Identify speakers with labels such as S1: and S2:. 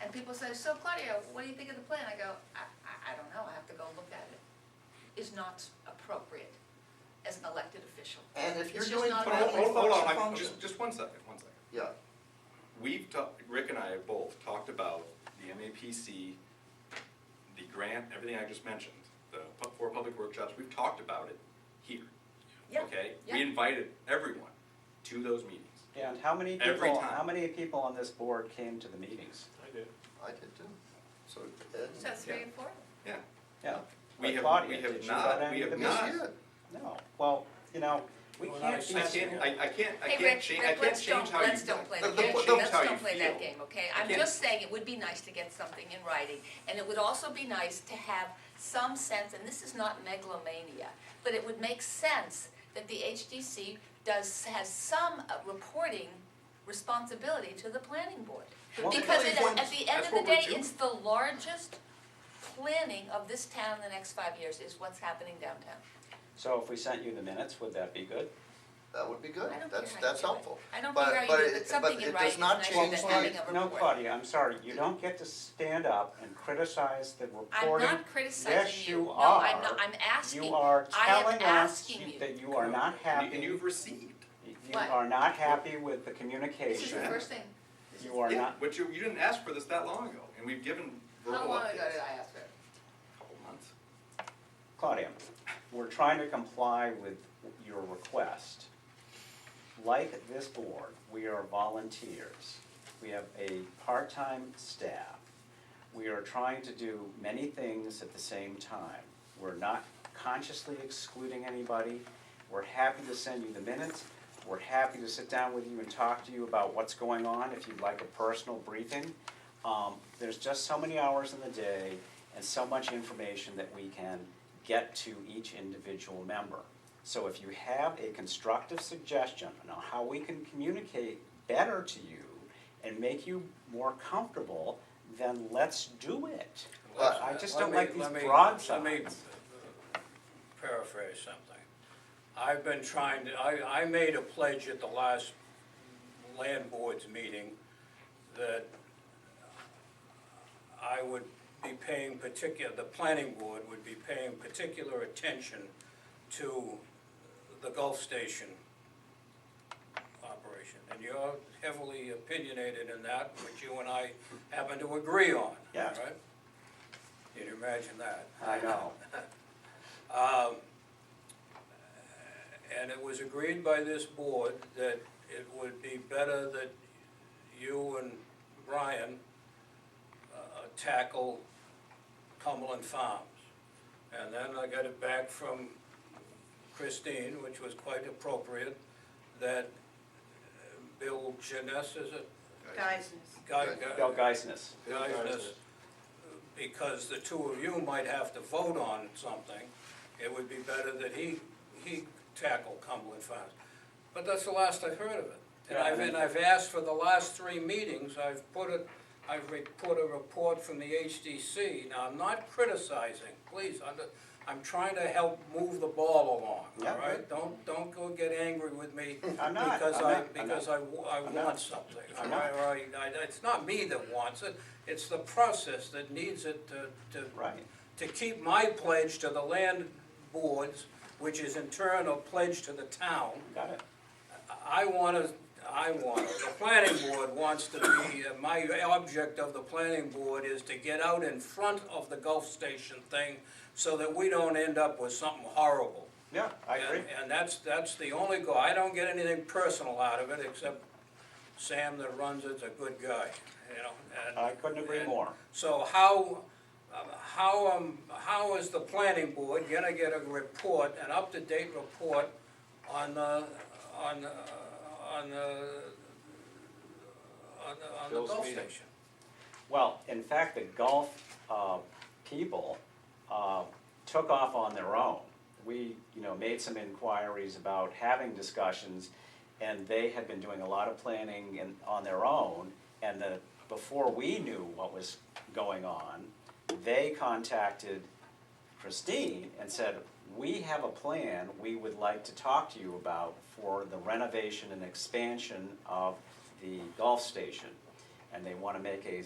S1: and people say, so Claudia, what do you think of the plan? I go, I, I, I don't know, I have to go look at it. Is not appropriate as an elected official.
S2: And if you're
S1: It's just
S2: doing
S1: not
S2: But
S3: Hold,
S2: how many
S3: hold, hold on,
S2: folks are
S3: I-
S2: found
S3: just,
S2: it?
S3: just one second, one second.
S2: Yeah,
S3: We've talked, Rick and I have both talked about the MAPC, the grant, everything I just mentioned, the pu- four public workshops, we've talked about it here.
S1: Yeah,
S3: Okay?
S1: yeah.
S3: We invited everyone to those meetings.
S4: And how many
S3: Every
S4: people,
S3: time.
S4: how many people on this board came to the meetings?
S5: I did.
S2: I did too.
S3: So,
S2: And-
S1: So three and four?
S3: yeah,
S4: Yeah.
S3: we have,
S4: But
S3: we
S4: Claudia,
S3: have
S4: did you go
S3: not,
S4: down
S3: we
S4: to the
S3: have
S4: meetings?
S3: not.
S2: Yes, you did.
S4: No, well, you know, we
S5: Well,
S4: can't be.
S3: I can't, I, I can't, I
S1: Hey,
S3: can't
S1: Rick,
S3: change, I
S1: Rick,
S3: can't
S1: let's
S3: change
S1: don't,
S3: how you.
S1: let's don't play
S3: I
S1: the
S3: can't
S1: game,
S3: change
S1: let's
S3: how you
S1: don't play that
S3: feel.
S1: game, okay?
S3: I
S1: I'm
S3: can't-
S1: just saying, it would be nice to get something in writing, and it would also be nice to have some sense, and this is not megalomania, but it would make sense that the HDC does, has some uh, reporting responsibility to the planning board.
S4: Well,
S1: Because it,
S3: that's-
S1: at the end
S3: that's
S1: of the
S3: what we're
S1: day,
S3: doing.
S1: it's the largest planning of this town in the next five years, is what's happening downtown.
S4: So if we sent you the minutes, would that be good?
S2: That would be good,
S1: I don't
S2: that's,
S1: care how you
S2: that's
S1: do it.
S2: helpful.
S1: I don't
S2: But-
S1: care how you
S2: but
S1: do it, but
S2: it-
S1: something in writing
S2: But it does
S1: is
S2: not
S1: nice
S2: change
S1: than
S2: the-
S1: having a-
S4: No,
S1: report.
S4: Claudia, I'm sorry, you don't get to stand up and criticize the
S1: I'm
S4: reporting.
S1: not criticizing
S4: Yes,
S1: you,
S4: you
S1: no,
S4: are.
S1: I'm not, I'm asking,
S4: You are
S1: I am
S4: telling us
S1: asking
S4: you-
S1: you.
S4: that you are not
S3: And you-
S4: happy,
S3: And
S4: you
S3: you've received.
S1: What?
S4: are not happy with the
S1: This is
S4: communication.
S1: the first thing, This is-
S4: You are
S3: Yeah,
S4: not,
S3: But you, you didn't ask for this that long ago, and we've given verbal updates.
S1: how long ago did I ask for it?
S3: Couple months.
S4: Claudia, we're trying to comply with your request. Like this board, we are volunteers. We have a part-time staff. We are trying to do many things at the same time. We're not consciously excluding anybody. We're happy to send you the minutes. We're happy to sit down with you and talk to you about what's going on, if you'd like a personal briefing. Um, there's just so many hours in the day and so much information that we can get to each individual member. So if you have a constructive suggestion on how we can communicate better to you and make you more comfortable, then let's do it.
S2: Well,
S4: I just
S5: Let
S4: don't
S5: me-
S4: like these
S5: let me-
S4: broad
S5: Let me
S4: signs.
S5: paraphrase something. I've been trying to, I, I made a pledge at the last land boards meeting that I would be paying particular, the planning board would be paying particular attention to the Gulf Station operation. And you're heavily opinionated in that, which you and I happen to agree on,
S4: Yeah.
S5: right? Can you imagine that?
S4: I know.
S5: Um, And it was agreed by this board that it would be better that you and Brian uh, tackle Cumberland Farms. And then I got it back from Christine, which was quite appropriate, that uh, Bill uh, Janess is it? Guy, guy.
S4: Bill Geisness,
S5: Guys, because the two of you might have to vote on something, it would be better that he, he tackle Cumberland Farms. But that's the last I've heard of it. And I've, and I've asked for the last three meetings, I've put it, I've re- put a report from the HDC. Now, I'm not criticizing, please, I'm, not- I'm trying to help move the ball along,
S4: Yeah.
S5: all right? Don't, don't go get angry with me.
S4: I'm not,
S5: Because
S4: I'm
S5: I,
S4: not, I'm not.
S5: because I, wa- I
S4: I'm not.
S5: want something.
S4: I'm
S5: I-
S4: not.
S5: I- I- It's not me that wants it, it's the process that needs it to, to.
S4: Right.
S5: To keep my pledge to the land boards, which is in turn a pledge to the town.
S4: got it.
S5: I wanna, I wanna, the planning board wants to be, uh, my object of the planning board is to get out in front of the Gulf Station thing so that we don't end up with something horrible.
S4: Yeah, I
S5: And-
S4: agree.
S5: And that's, that's the only goal. I don't get anything personal out of it, except Sam that runs it's a good guy, you know? and-
S4: I couldn't agree
S5: and
S4: more.
S5: So how, um, how, um, how is the planning board gonna get a report, an up-to-date report on, uh, on, uh, on, uh, on, the- on the
S3: Bill's
S5: Gulf
S3: meeting.
S5: Station?
S4: Well, in fact, the Gulf uh, people uh, took off on their own. We, you know, made some inquiries about having discussions, and they had been doing a lot of planning and on their own. And the, before we knew what was going on, they contacted Christine and said, we have a plan we would like to talk to you about for the renovation and expansion of the Gulf Station. And they want to make a